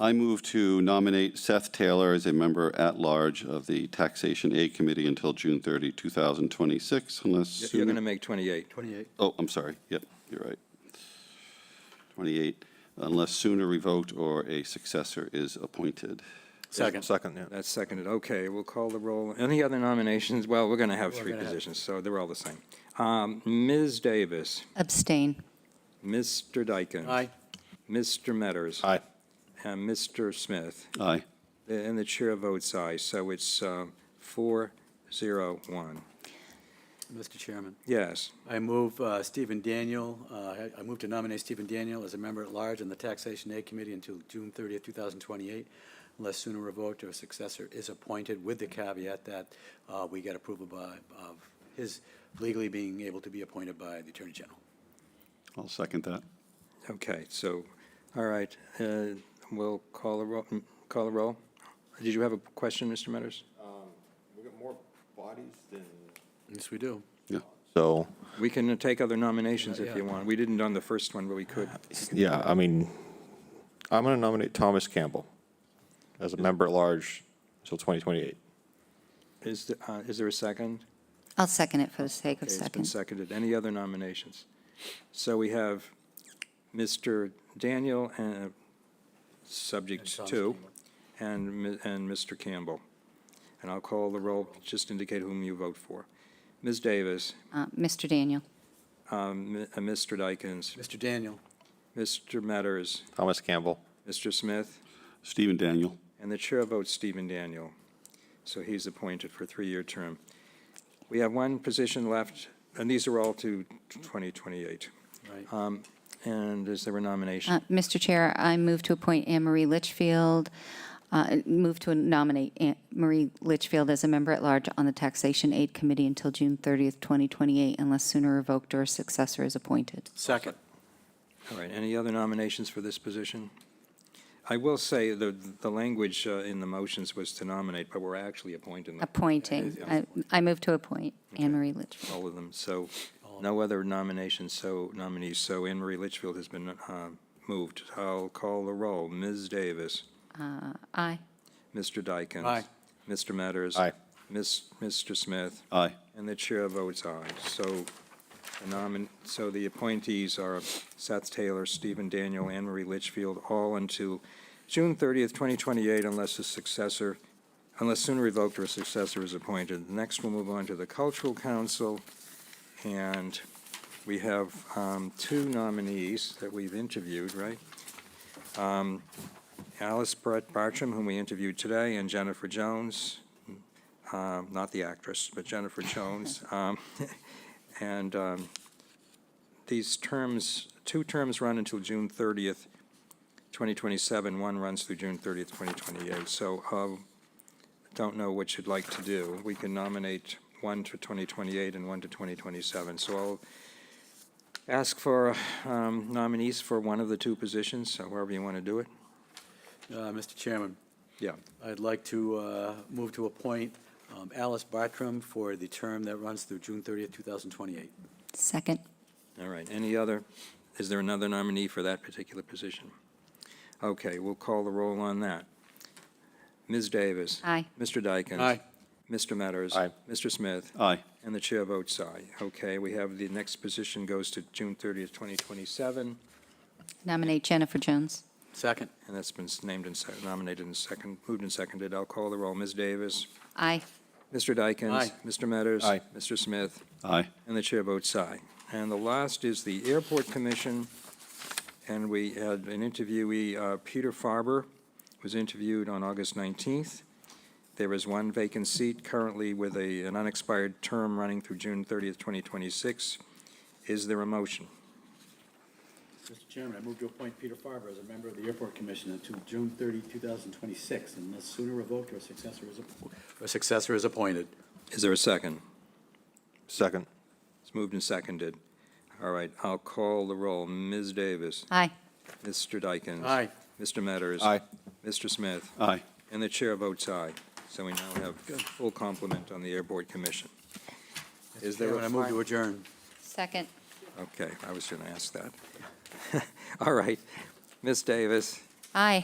I move to nominate Seth Taylor as a member at large of the Taxation Aid Committee until June 30, 2026, unless. You're sooner- going to make 28. 28. Oh, I'm sorry. Yep, you're right. 28, unless sooner revoked or a successor is appointed. Second. Second, yeah. That's seconded. Okay, we'll call the roll. Any other nominations? Well, we're going to have three gonna have- positions, so they're all the same. Um, Ms. Davis, Abstain. Mr. Dyken. Aye. Mr. Metters. Aye. And Mr. Smith. Aye. And the chair votes aye, so it's um, four, zero, one. Mr. Chairman, Yes. I move uh, Stephen Daniel, uh, I- I move to nominate Stephen Daniel as a member at large on the Taxation Aid Committee until June 30th, 2028, unless sooner revoked or a successor is appointed, with the caveat that uh, we get approval by, of his legally being able to be appointed by the Attorney General. I'll second that. Okay, so, all right, uh, we'll call a roll, call a roll. Did you have a question, Mr. Metters? We've got more bodies than. Yes, we do. Yeah. So, We can take other nominations if Yeah, you yeah. want. We didn't on the first one, but we could. yeah, I mean, I'm going to nominate Thomas Campbell as a member at large until 2028. Is, th- uh, is there a second? I'll second it for the sake of Okay, It's been second. seconded. Any other nominations? So we have Mr. Daniel, uh, subject And Thomas two, Campbell. and, mi- and Mr. Campbell. And I'll call the roll, just indicate whom you vote for. Ms. Davis, Uh, Mr. Daniel. um, mi- uh, Mr. Dykens, Mr. Daniel, Mr. Metters, Thomas Campbell. Mr. Smith, Stephen Daniel. and the chair votes Stephen Daniel. So he's appointed for a three-year term. We have one position left, and these are all to 2028. right? Uh, And is there a nomination? Uh, Mr. Chair, I move to appoint Anne Marie Litchfield, uh, move to nominate Anne Marie Litchfield as a member at large on the Taxation Aid Committee until June 30th, 2028, unless sooner revoked or a successor is appointed. Second. Uh, All right, any other nominations for this position? I will say the, the language uh, in the motions was to nominate, but we're actually appointing them, Uh, Appointing. I- I move to appoint Anne Marie Litchfield. all of them. So no other nominations, so nominees. So Anne Marie Litchfield has been uh, moved. I'll call the roll. Ms. Davis. Aye. Mr. Dykens. Aye. Mr. Metters. Aye. Miss, Mr. Smith. Aye. And the chair votes aye. So the nomin, so the appointees are Seth Taylor, Stephen Daniel, Anne Marie Litchfield, all until June 30th, 2028, unless a successor, unless sooner revoked or a successor is appointed. Next, we'll move on to the Cultural Council, and we have um, two nominees that we've interviewed, right? Um, Alice Brett Bartram, whom we interviewed today, and Jennifer Jones um, not the actress, but Jennifer Jones. Um, And um, these terms, two terms run until June 30th, 2027, one runs through June 30th, 2028. So um, don't know what you'd like to do. We can nominate one to 2028 and one to 2027. So I'll ask for um, nominees for one of the two positions, so wherever you want to do it. Uh, Mr. Chairman, Yeah. I'd like to uh, move to appoint um, Alice Bartram for the term that runs through June 30th, 2028. Second. All right, any other, is there another nominee for that particular position? Okay, we'll call the roll on that. Ms. Davis. Aye. Mr. Dykens. Aye. Mr. Metters. Aye. Mr. Smith. Aye. And the chair votes aye. Okay, we have the next position goes to June 30th, 2027, Nominate Jennifer Jones. Second. and that's been named and sec- nominated and second, moved and seconded. I'll call the roll. Ms. Davis. Aye. Mr. Dykens. Aye. Mr. Metters. Aye. Mr. Smith. Aye. And the chair votes aye. And the last is the Airport Commission, and we had an interviewee, uh, Peter Farber, was interviewed on August 19th. There is one vacant seat currently with a, an unexpired term running through June 30th, 2026. Is there a motion? Mr. Chairman, I move to appoint Peter Farber as a member of the Airport Commission until June 30, 2026, unless sooner revoked or a successor is appointed. A successor is appointed. Is there a second? Second. It's moved and seconded. All right, I'll call the roll. Ms. Davis. Aye. Mr. Dykens. Aye. Mr. Metters. Aye. Mr. Smith. Aye. And the chair votes aye. So we now have full complement on the airport commission. Is there Chairman, a I move to final? adjourn. Second. Okay, I was going to ask that. All right. Ms. Davis, Aye.